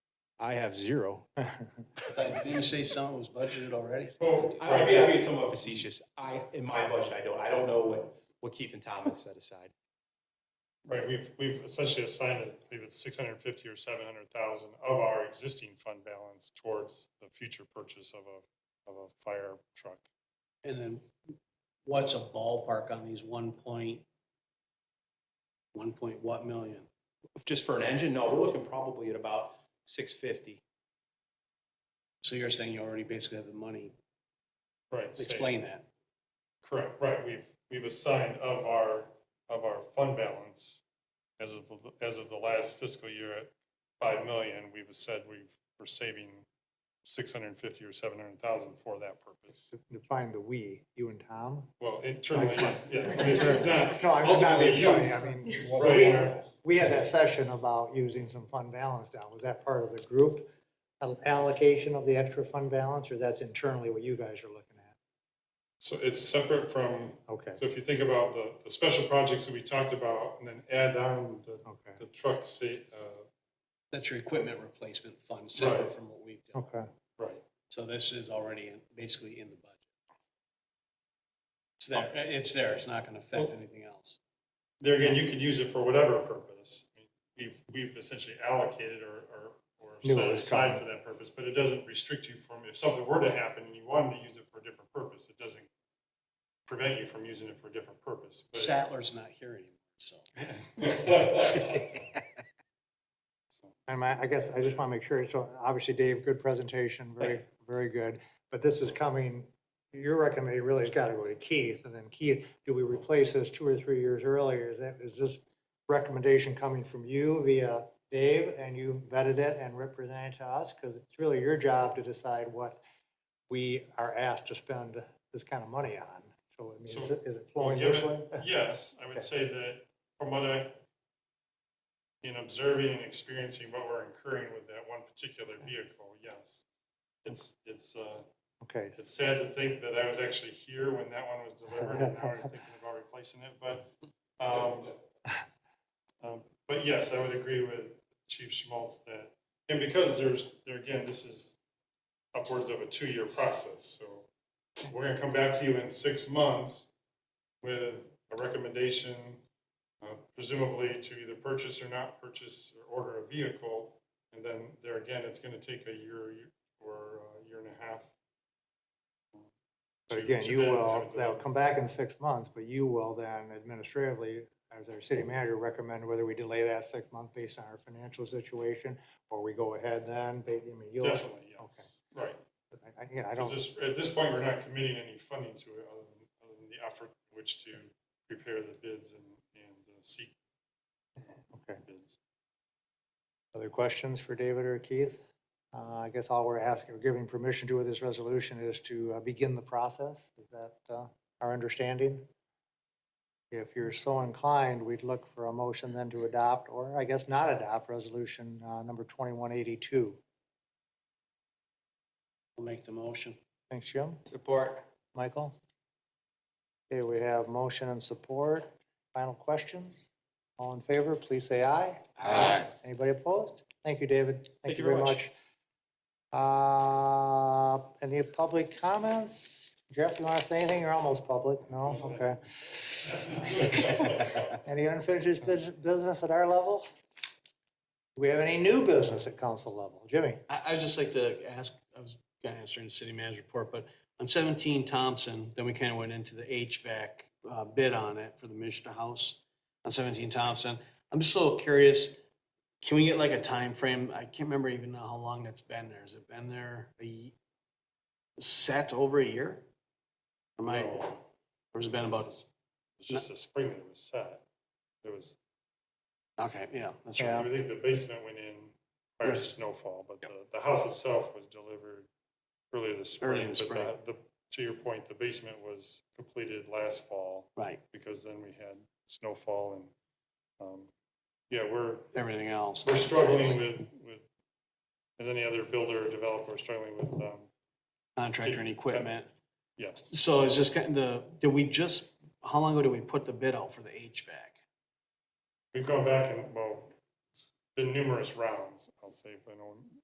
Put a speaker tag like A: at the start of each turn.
A: I have zero.
B: Didn't you say something was budgeted already?
A: Oh, I'm being somewhat facetious. I, in my budget, I don't, I don't know what, what Keith and Tom has set aside.
C: Right, we've, we've essentially assigned, I believe it's six hundred and fifty or seven hundred thousand of our existing fund balance towards the future purchase of a, of a fire truck.
B: And then what's a ballpark on these one point, one point what million?
A: Just for an engine, no, we're looking probably at about six fifty.
B: So you're saying you already basically have the money.
C: Right. say-
B: Explain that.
C: Correct, right, we've, we've assigned of our, of our fund balance as of, the- as of the last fiscal year at five million, we've said we we're saving six hundred and fifty or seven hundred thousand for that purpose.
D: Define the "we," you and Tom?
C: Well, internally, yeah, it's it's not.
D: No, I'm not
C: ultimately
D: being
C: you.
D: funny, I mean,
C: Right.
D: we had that session about using some fund balance down, was that part of the group allocation of the extra fund balance, or that's internally what you guys are looking at?
C: So it's separate from,
D: Okay,
C: so if you think about the, the special projects that we talked about and then add on the,
D: okay,
C: the truck sa, uh,
B: That's your equipment replacement fund, separate
C: Right.
B: from what we've done.
D: okay.
C: right.
B: So this is already in, basically in the budget. It's there, it's there, it's not gonna affect anything else.
C: There again, you could use it for whatever purpose. I mean, We've, we've essentially allocated or, or, or
D: Knew it
C: set it
D: was
C: aside
D: coming.
C: for that purpose, but it doesn't restrict you from, if something were to happen and you wanted to use it for a different purpose, it doesn't prevent you from using it for a different purpose. but-
B: Sattler's not here anymore, so.
C: So,
D: And I, I guess I just want to make sure, so obviously Dave, good presentation, very, very good. But this is coming, your recommendation really has got to go to Keith, and then Keith, do we replace this two or three years earlier? Is that, is this recommendation coming from you via Dave, and you vetted it and represented it to us? Because it's really your job to decide what we are asked to spend this kind of money on. So I mean, is it- is it flowing this way?
C: given- Yes, I would say that from what I, in observing and experiencing what we're incurring with that one particular vehicle, yes. It's, it's, uh,
D: Okay,
C: It's sad to think that I was actually here when that one was delivered and now we're thinking about replacing it, but, um, um, but yes, I would agree with Chief Schmaltz that, and because there's, there again, this is upwards of a two-year process, so we're gonna come back to you in six months with a recommendation, uh, presumably to either purchase or not purchase or order a vehicle. And then there again, it's gonna take a year or a year and a half
D: But
C: to-
D: again,
C: to
D: you
C: then
D: will,
C: have it
D: they'll
C: delivered.
D: come back in six months, but you will then administratively, as our city manager, recommend whether we delay that six months based on our financial situation, or we go ahead then, ba- I mean, you'll,
C: Definitely, yes. Right.
D: I- I- again, I
C: 'Cause
D: don't,
C: this, at this point, we're not committing any funding to it other than, other than the effort in which to prepare the bids and, and uh, seek
D: okay.
C: bids.
D: Other questions for David or Keith? Uh, I guess all we're asking, or giving permission to with this resolution is to uh, begin the process. Is that uh, our understanding? If you're so inclined, we'd look for a motion then to adopt, or I guess not adopt, resolution uh, number 2182.
B: I'll make the motion.
D: Thanks, Jim.
A: Support.
D: Michael? Okay, we have motion and support. Final questions? All in favor, please say aye.
A: Aye.
D: Anybody opposed? Thank you, David.
A: Thank you very much.
D: Uh, Any public comments? Jeff, you want to say anything? You're almost public. No? Okay. Any unfinished bus- business at our level? Do we have any new business at council level? Jimmy?
B: I, I'd just like to ask, I was gonna ask during the city manager report, but on seventeen Thompson, then we kind of went into the HVAC uh, bid on it for the Mishna House on seventeen Thompson. I'm just a little curious, can we get like a time frame? I can't remember even how long that's been there. Has it been there a ye- set over a year? Am I, or
C: No,
B: has it been about,
C: It's just a spring that was set. There was,
B: okay, yeah, that's
D: Yeah.
B: right.
C: I think the basement went in prior to
B: Yes.
C: snowfall, but the, the house itself was delivered earlier this
B: Early
C: spring.
B: in the
C: but
B: spring.
C: that- The, to your point, the basement was completed last fall
B: Right,
C: because then we had snowfall and, um, yeah, we're,
B: everything else.
C: we're struggling with, with, as any other builder or developer, we're struggling with, um,
B: Contractor and equipment.
C: yes.
B: So it's just kind of the, did we just, how long ago did we put the bid out for the HVAC?
C: We've gone back and, well, it's been numerous rounds, I'll say, if I know,